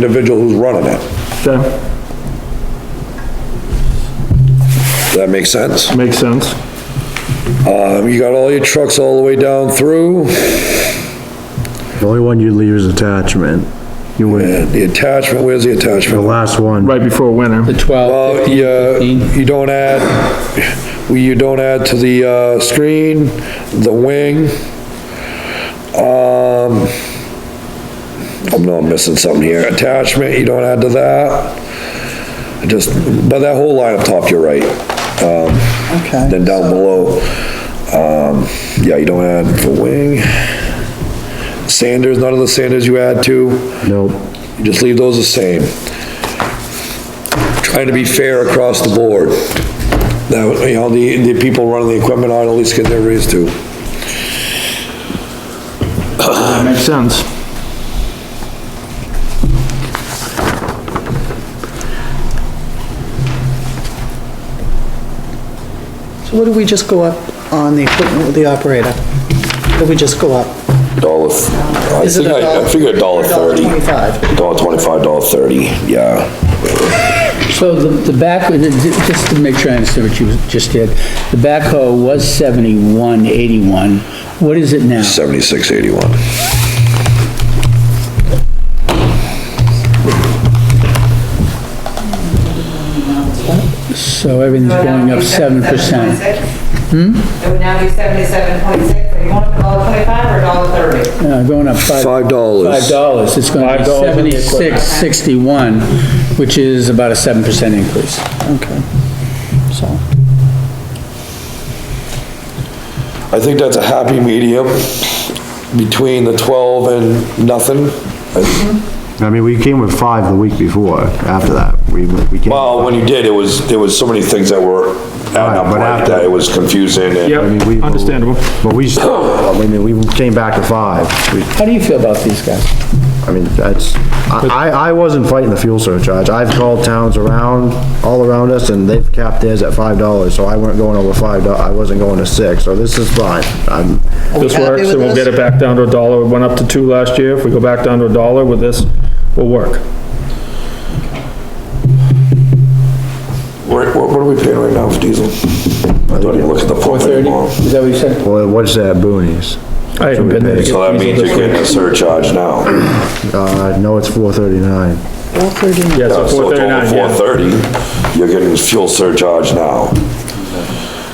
individual who's running it. Okay, Does that make sense? makes sense. Um, you got all your trucks all the way down through, The only one you leave is attachment. You wait, and the attachment, where's the the attachment? last one. Right before winter. The 12, Well, 15, yeah, 15. Uh, you don't add, you don't add to the, uh, screen, the wing. Um, I'm not missing something here. Attachment, you don't add to that. Just, but that whole line up top, you're right. Um, Okay. Then down below, um, yeah, you don't add for wing. Sanders, none of the sanders you add to, Nope. you just leave those the same. Trying to be fair across the board. That, you know, the, the people running the equipment ought to at least get their raise too. That makes sense. So what did we just go up on the equipment with the operator? What Did we just go up? Dollar, I Is it think a I, I dollar- figured a dollar dollar thirty. $25? Dollar twenty-five, dollar thirty, yeah. So the, the back, just to make sure I understand what you just did, the backhoe was 71, 81. What is it now? Seventy-six, eighty-one. So everything's going up 7%. It would now be seventy-seven point six, you want a dollar twenty-five or a dollar thirty? Uh, going up 5. Five dollars. Five dollars, it's gonna be seventy-six, sixty-one, which is about a seven percent increase. Okay, so, I think that's a happy medium between the 12 and nothing. I mean, we came with five the week before, after that. We, we came, I Well, when you did, it was, there was so many things that were adding up Right, but like that, it was confusing and. mean, Yep, we. understandable. But we, still- I mean, we came back to five. We, How do you feel about these guys? I mean, that's, I, I I wasn't fighting the fuel surcharge. I've called towns around, all around us, and they've capped theirs at five dollars, so I weren't going over five, do- I wasn't going to six, so this is fine. I'm, This happy works, with and we'll this? get it back down to a dollar. It went up to two last year. If we go back down to a dollar with this, we'll work. What, what what are we paying right now for diesel? I don't even look at the Four pump thirty, anymore. is that what you said? well, what's that, boonies? I haven't been there. So that means you're getting a surcharge now. Uh, no, it's four thirty-nine. four thirty-nine, Yeah, so So four it's over thirty-nine, yeah. 430, you're getting fuel surcharge now.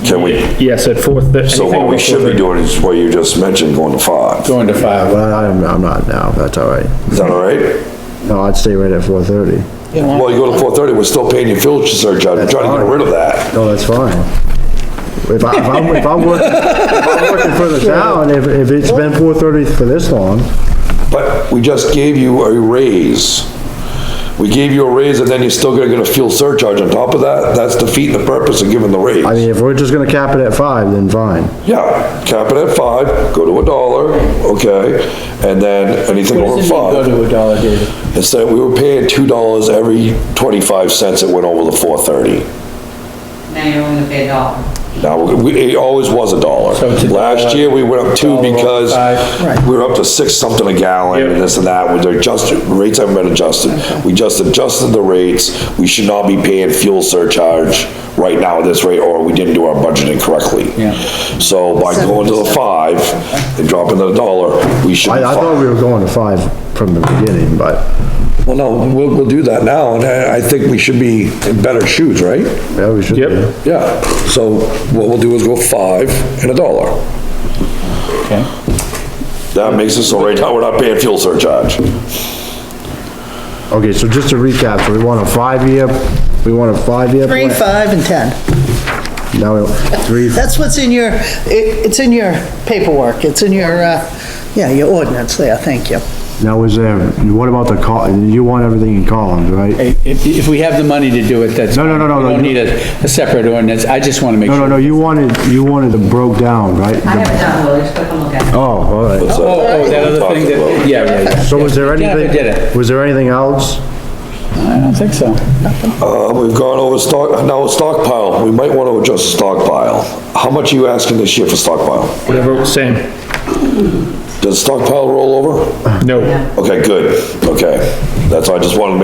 Can we, Yes, at four thirty. so what we should be doing is what you just mentioned, going to five. Going to five. Well, I'm, I'm not now, that's all right. Is that all right? No, I'd stay right at four thirty. Well, you go to 430, we're still paying you fuel surcharge. I'm trying to get rid of that. No, that's fine. If I, if I'm, if I'm working, if I'm working for the town, if, if it's been four thirty for this long, But we just gave you a raise. We gave you a raise and then you're still gonna get a fuel surcharge on top of that? That's defeating the purpose of giving the I mean, raise. if we're just gonna cap it at five, then fine. Yeah, cap it at five, go to a dollar, okay? And then anything What over does it mean go five. to a dollar, David? Instead, we were paying two dollars every twenty-five cents that went over the four thirty. Now you're only pay a dollar. Now, we, it always was a dollar. So it's a Last dollar, year, we went up two dollar because five. Right. we were up to six something a gallon and Yeah. this and that. We're adjusted, rates haven't been adjusted. We just adjusted the rates. We should not be paying fuel surcharge right now at this rate, or we didn't do our budgeting correctly. Yeah. So by going to the five and dropping the dollar, we should be I, I thought we fine. were going to five from the beginning, but, Well, no, we'll, we'll do that now, and I, I think we should be in better shoes, right? yeah, we should. Yep. do. Yeah, so what we'll do is go five and a dollar. Okay. That makes it so right now, we're not paying fuel surcharge. Okay, so just to recap, so we want a five-year, we want a five-year. three, plan. five, and ten. No, three, That's what's in your, it, it's in your paperwork, it's in your, uh, yeah, your ordinance there, thank you. now is there, what about the col, you want everything in columns, right? Hey, If, if we have the money to do it, that's. No, no, no, no, We no. don't need a, a separate ordinance, I just wanna make No, sure. no, no, you wanted, you wanted them broke down, right? I haven't done Willie, just click and look at it. Oh, all right. Oh, oh, that other thing that, yeah, yeah, yeah. So was there Jennifer anything? did it. Was there anything else? I don't think so. Uh, we've gone over stock, now stockpile, we might want to adjust the stockpile. How much are you asking this year for stockpile? Whatever, same. Does stockpile roll over? No. Okay, good, okay. That's, I just wanted to make